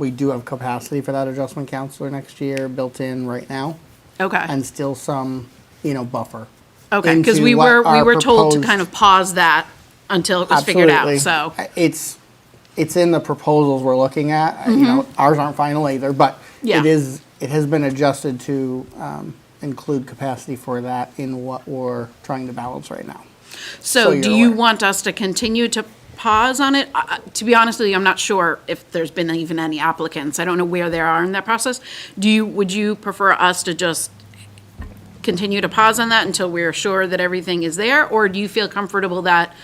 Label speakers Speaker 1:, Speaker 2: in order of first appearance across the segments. Speaker 1: we do have capacity for that adjustment counselor next year built in right now,
Speaker 2: Okay,
Speaker 1: and still some, you know, buffer.
Speaker 2: okay, because
Speaker 1: into
Speaker 2: we
Speaker 1: what
Speaker 2: were, we
Speaker 1: our
Speaker 2: were told to
Speaker 1: proposed-
Speaker 2: kind of pause that until it was figured out, so.
Speaker 1: Absolutely. It's, it's in the proposals we're looking at, you know, ours aren't final either, but
Speaker 2: Mm-hmm. Yeah.
Speaker 1: it is, it has been adjusted to um, include capacity for that in what we're trying to balance right now. so
Speaker 2: So do
Speaker 1: you're
Speaker 2: you
Speaker 1: aware.
Speaker 2: want us to continue to pause on it? I- I- To be honest with you, I'm not sure if there's been even any applicants. I don't know where they are in that process. Do you, would you prefer us to just continue to pause on that until we're sure that everything is there? Or do you feel comfortable that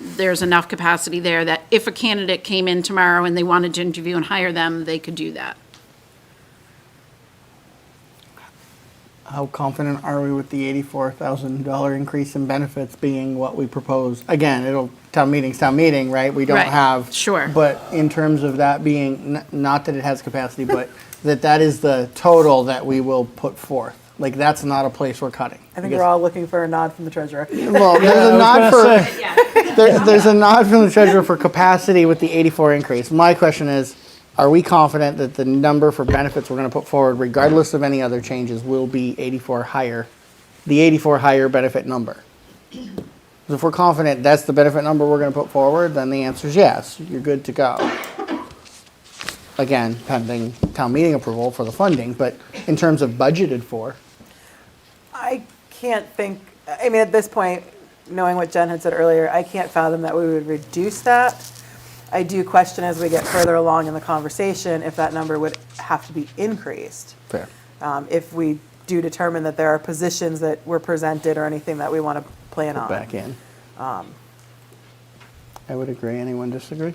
Speaker 2: there's enough capacity there that if a candidate came in tomorrow and they wanted to interview and hire them, they could do that?
Speaker 1: How confident are we with the eighty-four thousand dollar increase in benefits being what we propose? Again, it'll, town meeting's town meeting, right? We don't
Speaker 2: Right,
Speaker 1: have.
Speaker 2: sure.
Speaker 1: But in terms of that being, n- not that it has capacity, but that that is the total that we will put forth. Like, that's not a place we're cutting.
Speaker 3: I think we're all looking for a nod from the treasurer.
Speaker 1: Well, there's a nod for, there- there's a nod from the treasurer for capacity with the 84 increase. My question is, are we confident that the number for benefits we're going to put forward, regardless of any other changes, will be 84 higher, the 84 higher benefit number? 'Cause If we're confident that's the benefit number we're going to put forward, then the answer is yes, you're good to go. Again, pending town meeting approval for the funding, but in terms of budgeted for,
Speaker 3: I can't think, I mean, at this point, knowing what Jen had said earlier, I can't fathom that we would reduce that. I do question as we get further along in the conversation if that number would have to be increased.
Speaker 1: fair.
Speaker 3: Um, If we do determine that there are positions that were presented or anything that we want to plan on.
Speaker 1: back in.
Speaker 3: um,
Speaker 1: I would agree. Anyone disagree?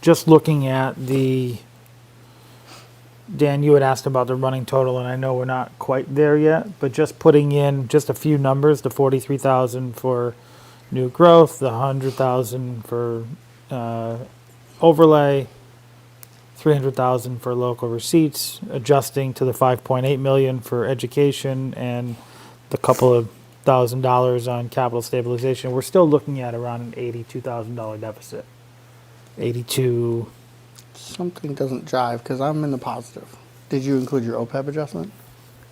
Speaker 4: just looking at the, Dan, you had asked about the running total, and I know we're not quite there yet, but just putting in just a few numbers, the forty-three thousand for new growth, the hundred thousand for, uh, overlay, three hundred thousand for local receipts, adjusting to the five point eight million for education and the couple of thousand dollars on capital stabilization, we're still looking at around an eighty-two thousand dollar deficit. 82
Speaker 1: Something doesn't jive because I'm in the positive. Did you include your OPEB adjustment?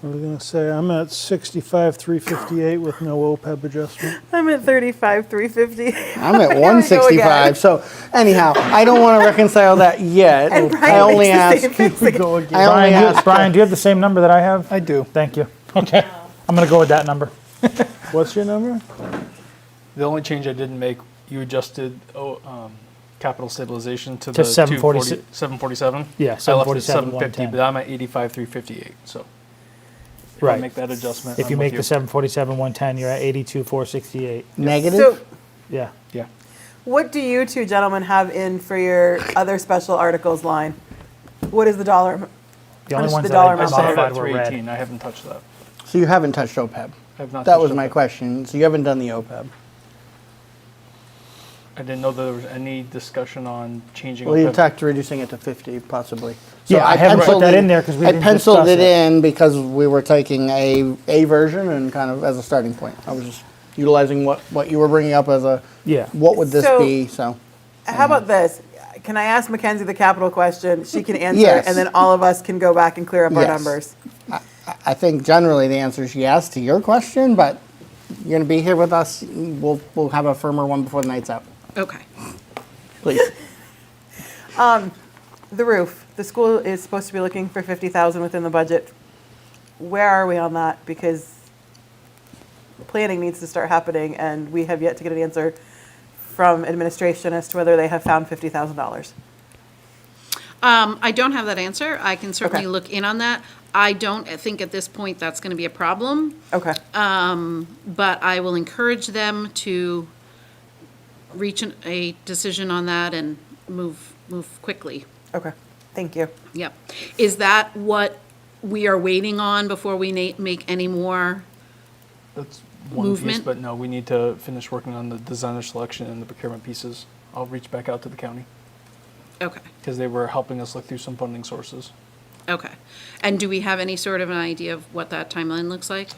Speaker 5: I was gonna say, I'm at sixty-five, three fifty-eight with no OPEB adjustment.
Speaker 3: I'm at 35, 350.
Speaker 1: I'm at
Speaker 3: again.
Speaker 1: 165. So anyhow, I don't want to reconcile that yet.
Speaker 3: And Brian
Speaker 1: I only
Speaker 3: makes the
Speaker 1: ask.
Speaker 3: same face again.
Speaker 1: I only
Speaker 4: Brian, do you,
Speaker 1: ask.
Speaker 4: Brian, do you have the same number that I have?
Speaker 5: I do.
Speaker 4: Thank you. Okay. I'm going to go with that number.
Speaker 5: What's your number?
Speaker 6: The only change I didn't make, you adjusted oh, um, capital stabilization to,
Speaker 4: To
Speaker 6: the
Speaker 4: 746
Speaker 6: 747.
Speaker 4: Yeah,
Speaker 6: I left it
Speaker 4: 747,
Speaker 6: at 750, but I'm at 85, 358. So if I
Speaker 4: Right.
Speaker 6: make that adjustment.
Speaker 4: If
Speaker 6: I'm
Speaker 4: you
Speaker 6: with
Speaker 4: make the 747 110, you're at 82 468.
Speaker 1: Negative?
Speaker 3: So
Speaker 4: Yeah.
Speaker 6: yeah,
Speaker 3: what do you two gentlemen have in for your other special articles line? What is the dollar? am-
Speaker 4: The
Speaker 3: How
Speaker 4: only
Speaker 3: much
Speaker 4: ones
Speaker 3: the
Speaker 4: that I
Speaker 3: dollar
Speaker 6: I
Speaker 3: amount?
Speaker 6: started
Speaker 4: modified
Speaker 6: at
Speaker 4: were
Speaker 6: 318.
Speaker 4: red.
Speaker 6: I haven't touched that.
Speaker 1: So you haven't touched OPEB.
Speaker 6: I have not
Speaker 1: That
Speaker 6: touched E
Speaker 1: was
Speaker 6: up
Speaker 1: my
Speaker 6: that.
Speaker 1: question. So you haven't done the E OPEB.
Speaker 6: I didn't know there was any discussion on changing.
Speaker 1: Well, you
Speaker 6: OPEB.
Speaker 1: talked reducing it to 50 possibly.
Speaker 4: Yeah, I haven't put
Speaker 1: penciled
Speaker 4: that in there 'cause we
Speaker 1: I
Speaker 4: didn't
Speaker 1: penciled
Speaker 4: discuss
Speaker 1: it
Speaker 4: it.
Speaker 1: in because we were taking a, a version and kind of as a starting point. I was just utilizing what, what you were bringing up as a,
Speaker 4: Yeah.
Speaker 1: what would this
Speaker 3: So-
Speaker 1: be, so.
Speaker 3: How about this? Can I ask Mackenzie the capital question? She can answer, it,
Speaker 1: Yes.
Speaker 3: and then all of us can go back and clear up our
Speaker 1: Yes.
Speaker 3: numbers.
Speaker 1: I think generally the answer is yes to your question, but you're gonna be here with us, we'll, we'll have a firmer one before the night's out,
Speaker 2: Okay.
Speaker 1: please.
Speaker 3: The roof. The school is supposed to be looking for fifty thousand within the budget. Where are we on that? Because planning needs to start happening, and we have yet to get an answer from administration as to whether they have found fifty thousand dollars.
Speaker 2: Um, I don't have that answer. I can certainly
Speaker 3: Okay.
Speaker 2: look in on that. I don't think at this point that's going to be a problem,
Speaker 3: Okay.
Speaker 2: but I will encourage them to reach an- a decision on that and move, move quickly.
Speaker 3: okay. Thank you.
Speaker 2: Yep. Is that what we are waiting on before we na- make any more?
Speaker 6: That's one
Speaker 2: movement.
Speaker 6: piece, but no, we need to finish working on the designer selection and the procurement pieces. I'll reach back out to the county
Speaker 2: Okay,
Speaker 6: because they were helping us look through some funding sources.
Speaker 2: okay. And do we have any sort of an idea of what that timeline looks like?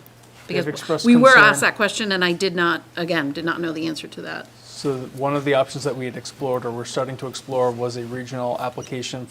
Speaker 6: They've
Speaker 2: Because
Speaker 6: expressed
Speaker 2: we were
Speaker 6: concern.
Speaker 2: asked that question and I did not, again, did not know the answer to that.
Speaker 6: So one of the options that we had explored or were starting to explore was a regional application